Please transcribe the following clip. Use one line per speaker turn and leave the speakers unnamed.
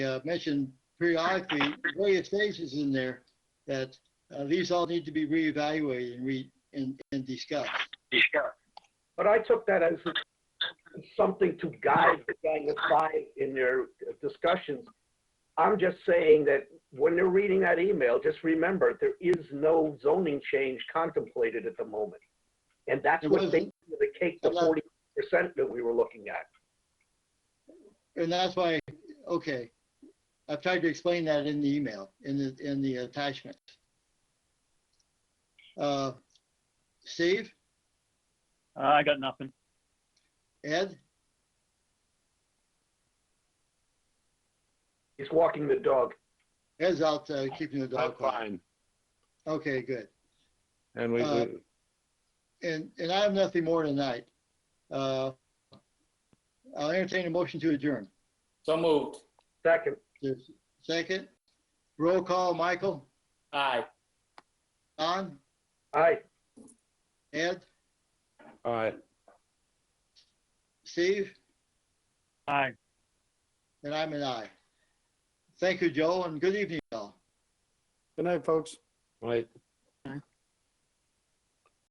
uh, mentioned periodically, various phases in there, that uh, these all need to be reevaluated and re, and and discussed.
But I took that as something to guide the Gang of Five in their discussions. I'm just saying that when they're reading that email, just remember, there is no zoning change contemplated at the moment. And that's
There
what they,
wasn't.
they take the
There
forty percent that we were looking at.
And that's why, okay, I've tried to explain that in the email, in the, in the attachment. Uh, Steve,
Uh, I got nothing.
Ed,
He's walking the dog.
Ed's out uh, keeping the
I'm
dog quiet.
fine.
Okay, good.
And we,
Uh,
we-
And, and I have nothing more tonight. Uh, I'll entertain a motion to adjourn.
So moved.
Second,
There's Second, roll call, Michael,
Aye.
Don,
aye,
Ed,
all right,
Steve,
Aye.
and I'm an I. Thank you, Joe, and good evening, all.
good night, folks. Right.